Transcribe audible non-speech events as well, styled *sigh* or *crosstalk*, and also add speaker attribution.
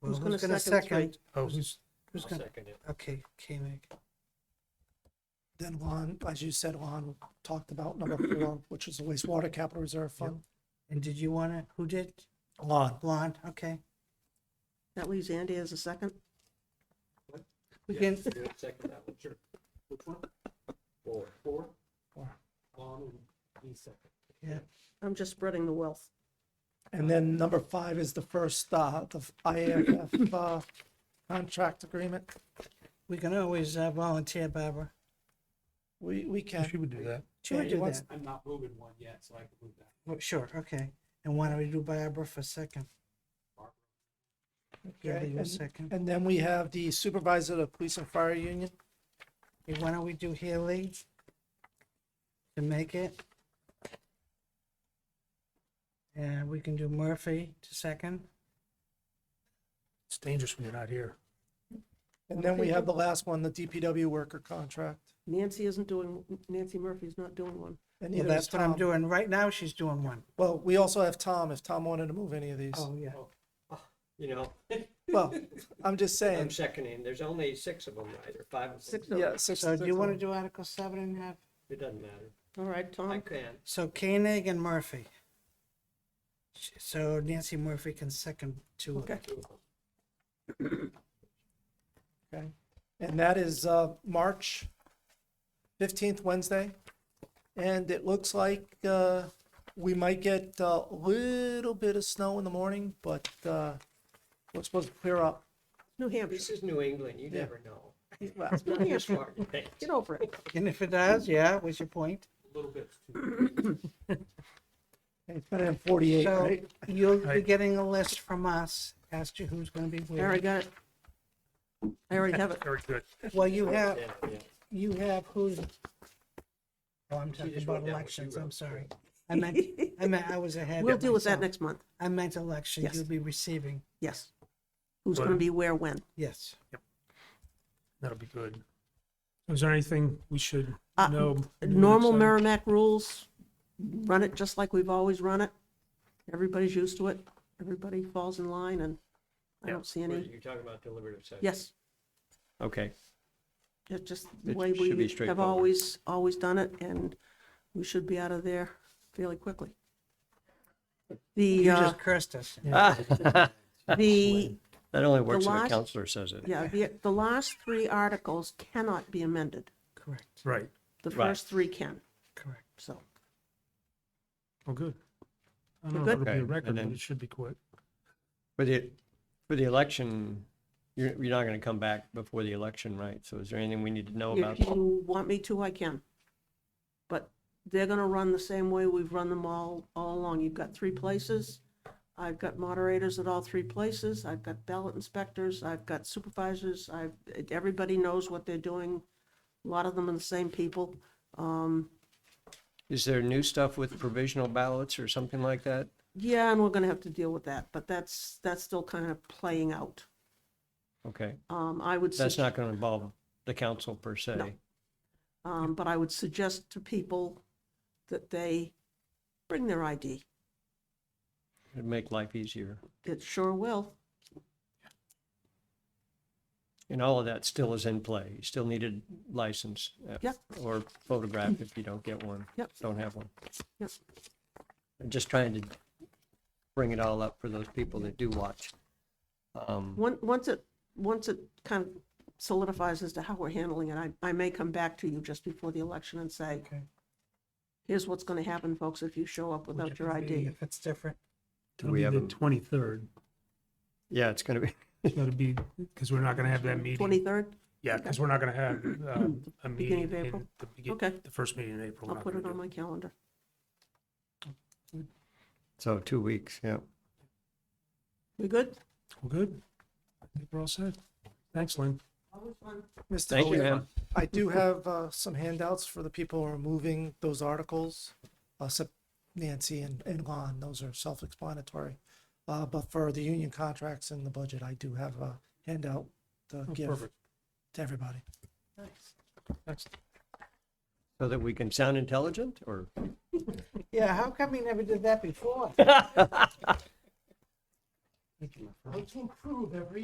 Speaker 1: Well,
Speaker 2: Who's gonna
Speaker 1: gonna
Speaker 2: second, right?
Speaker 1: Oh, who's, who's
Speaker 3: I'll
Speaker 1: gonna,
Speaker 3: second it.
Speaker 1: okay, K-Mag. Then Lon, as you said, Lon talked
Speaker 2: *clears throat*
Speaker 1: about number four, which is the wastewater capital reserve fund.
Speaker 2: And did you wanna, who did?
Speaker 1: Lon,
Speaker 2: Blonde, okay. That leaves Andy as a second?
Speaker 3: What?
Speaker 2: We
Speaker 3: Yeah,
Speaker 2: can,
Speaker 3: yeah, Second that one, sure. Which one? Four. Four?
Speaker 1: Four.
Speaker 3: Long and me second.
Speaker 1: yeah.
Speaker 2: I'm just spreading the wealth.
Speaker 1: And then number five is the first, uh, the
Speaker 2: *clears throat*
Speaker 1: IAF, uh, contract agreement.
Speaker 2: We can always uh, volunteer Barbara.
Speaker 1: We, we can.
Speaker 4: She would do that.
Speaker 2: She would
Speaker 1: Yeah,
Speaker 2: do
Speaker 1: once-
Speaker 2: that.
Speaker 3: I'm not moving one yet, so I can move that.
Speaker 2: Oh, Sure, okay. And why don't we do Barbara for second? Yeah,
Speaker 1: Okay,
Speaker 2: you
Speaker 1: and-
Speaker 2: second.
Speaker 1: And then we have the supervisor of the police and fire union.
Speaker 2: Hey, Why don't we do Haley? To make it? And we can do Murphy to second.
Speaker 4: It's dangerous when you're not here.
Speaker 1: And then we have the last one, the DPW worker contract.
Speaker 5: Nancy isn't doing, Nancy Murphy's not doing one.
Speaker 2: Well,
Speaker 1: And neither is
Speaker 2: that's what I'm
Speaker 1: Tom.
Speaker 2: doing. Right now, she's doing one.
Speaker 1: Well, we also have Tom, if Tom wanted to move any of these.
Speaker 2: Oh, yeah.
Speaker 3: You know, *laughs*
Speaker 1: Well, I'm just
Speaker 3: I'm *laughs*
Speaker 1: saying,
Speaker 3: seconding. There's only six of them, right? Or five of them.
Speaker 5: Six of
Speaker 1: yeah.
Speaker 5: them.
Speaker 1: six-
Speaker 2: So Uh, do
Speaker 1: six oh.
Speaker 2: you want to
Speaker 1: of
Speaker 2: do Article seven and have,
Speaker 3: It doesn't matter.
Speaker 5: All right,
Speaker 3: I
Speaker 5: Tom,
Speaker 3: can.
Speaker 2: so Koenig and Murphy? So Nancy Murphy can second two of them.
Speaker 5: okay.
Speaker 3: Two of them.
Speaker 1: them, okay. And that is, uh, March fifteenth, Wednesday. And it looks like, uh, we might get uh, a little bit of snow in the morning, but, uh, we're supposed to clear up.
Speaker 5: New Hampshire,
Speaker 3: This is New England. You
Speaker 1: Yeah.
Speaker 3: never know.
Speaker 1: Well,
Speaker 3: It's not this far. A
Speaker 5: get over *laughs* it.
Speaker 2: And if it does, yeah, what's your point?
Speaker 3: little bit.
Speaker 1: It's better than forty-eight,
Speaker 2: So
Speaker 1: right?
Speaker 2: you'll be
Speaker 4: Right.
Speaker 2: getting a list from us, as to who's going to be
Speaker 5: I
Speaker 2: where.
Speaker 5: already got it. I already have
Speaker 1: *laughs*
Speaker 5: it.
Speaker 4: Very good.
Speaker 2: Well, you have,
Speaker 3: Yeah, yeah.
Speaker 2: you have who's, oh, I'm
Speaker 3: You
Speaker 2: talking
Speaker 3: just
Speaker 2: about
Speaker 3: wrote down what you
Speaker 2: elections, I'm
Speaker 3: wrote.
Speaker 2: sorry. I meant, I meant, I was ahead.
Speaker 5: We'll deal with that
Speaker 2: myself.
Speaker 5: next month,
Speaker 2: I meant elections,
Speaker 5: Yes.
Speaker 2: you'll be receiving,
Speaker 5: yes. Who's gonna be where, when?
Speaker 2: yes.
Speaker 4: That'll be good. Is there anything we should
Speaker 5: Uh,
Speaker 4: know?
Speaker 5: Normal Merrimack rules, run it just like we've always run it. Everybody's used to it, everybody falls in line, and I
Speaker 3: Yeah,
Speaker 5: don't see
Speaker 3: where
Speaker 5: any,
Speaker 3: You're talking about deliberative session.
Speaker 5: yes.
Speaker 6: Okay,
Speaker 5: It's just the
Speaker 6: It
Speaker 5: way
Speaker 6: should be
Speaker 5: we have
Speaker 6: straightforward.
Speaker 5: always, always done it, and we should be out of there fairly quickly.
Speaker 2: You
Speaker 5: The, uh,
Speaker 2: just cursed us.
Speaker 6: *laughs* that
Speaker 5: the,
Speaker 6: Ah, only works if a
Speaker 5: last-
Speaker 6: counselor says it.
Speaker 5: yeah, the, the last three articles cannot be amended.
Speaker 2: Correct,
Speaker 4: Right,
Speaker 5: The
Speaker 6: Right.
Speaker 5: first three can,
Speaker 2: correct.
Speaker 5: so.
Speaker 4: well, Oh, good. I
Speaker 5: We're
Speaker 4: don't know if
Speaker 5: good.
Speaker 4: it'll be a
Speaker 6: Okay,
Speaker 4: record,
Speaker 6: and
Speaker 4: but
Speaker 6: then-
Speaker 4: it should be quick.
Speaker 6: For the, for the election, you're, you're not going to come back before the election, right? So is there anything we need to know about?
Speaker 5: If you want me to, I can. But they're gonna run the same way we've run them all, all along. You've got three places. I've got moderators at all three places. I've got ballot inspectors. I've got supervisors. I've, everybody knows what they're doing. A lot of them are the same people. Um,
Speaker 6: Is there new stuff with provisional ballots or something like that?
Speaker 5: yeah, and we're gonna have to deal with that, but that's, that's still kind of playing out.
Speaker 6: Okay,
Speaker 5: Um, I would.
Speaker 6: that's
Speaker 5: suggest-
Speaker 6: not going to involve the council per se.
Speaker 5: No. Um, but I would suggest to people that they bring their ID.
Speaker 6: It'd make life easier.
Speaker 5: It sure will.
Speaker 6: And all of that still is in play. You still need a license. uh,
Speaker 5: Yep.
Speaker 6: Or photograph if you don't get one.
Speaker 5: Yep.
Speaker 6: Don't have one.
Speaker 5: Yep.
Speaker 6: I'm just trying to bring it all up for those people that do watch. Um,
Speaker 5: Once, once it, once it kind of solidifies as to how we're handling it, I, I may come back to you just before the election and say,
Speaker 2: Okay.
Speaker 5: here's what's going to happen, folks, if you show up without your
Speaker 2: Maybe
Speaker 5: ID.
Speaker 2: If it's different.
Speaker 6: Do we have
Speaker 4: It'll
Speaker 6: a-
Speaker 4: be the twenty-third.
Speaker 6: Yeah, it's gonna be, *laughs*
Speaker 4: That'll be, because we're not going to have that meeting.
Speaker 5: Twenty-third,
Speaker 4: Yeah, because we're not going
Speaker 5: *clears throat*
Speaker 4: to have uh, a meeting
Speaker 5: Beginning of April?
Speaker 4: in the
Speaker 5: Okay.
Speaker 4: beginning, the first meeting in April.
Speaker 5: I'll
Speaker 4: we're not
Speaker 5: put it
Speaker 4: gonna
Speaker 5: on my
Speaker 4: do
Speaker 5: calendar.
Speaker 6: so two weeks, yeah.
Speaker 5: We good?
Speaker 4: Well, good. I think we're all set. Thanks, Lynn.
Speaker 1: Mr.
Speaker 6: Thank you,
Speaker 1: Delia,
Speaker 6: man.
Speaker 1: I do have uh, some handouts for the people who are moving those articles. Uh, Sep- Nancy and, and Lon, those are self-explanatory. Uh, but for the union contracts and the budget, I do have a handout to
Speaker 4: Oh,
Speaker 1: give
Speaker 4: Perfect.
Speaker 1: to everybody.
Speaker 4: Excellent.
Speaker 6: So that we can sound intelligent or?
Speaker 2: Yeah, how come we never did that before?
Speaker 7: Thank you, my friend.
Speaker 6: Like to improve every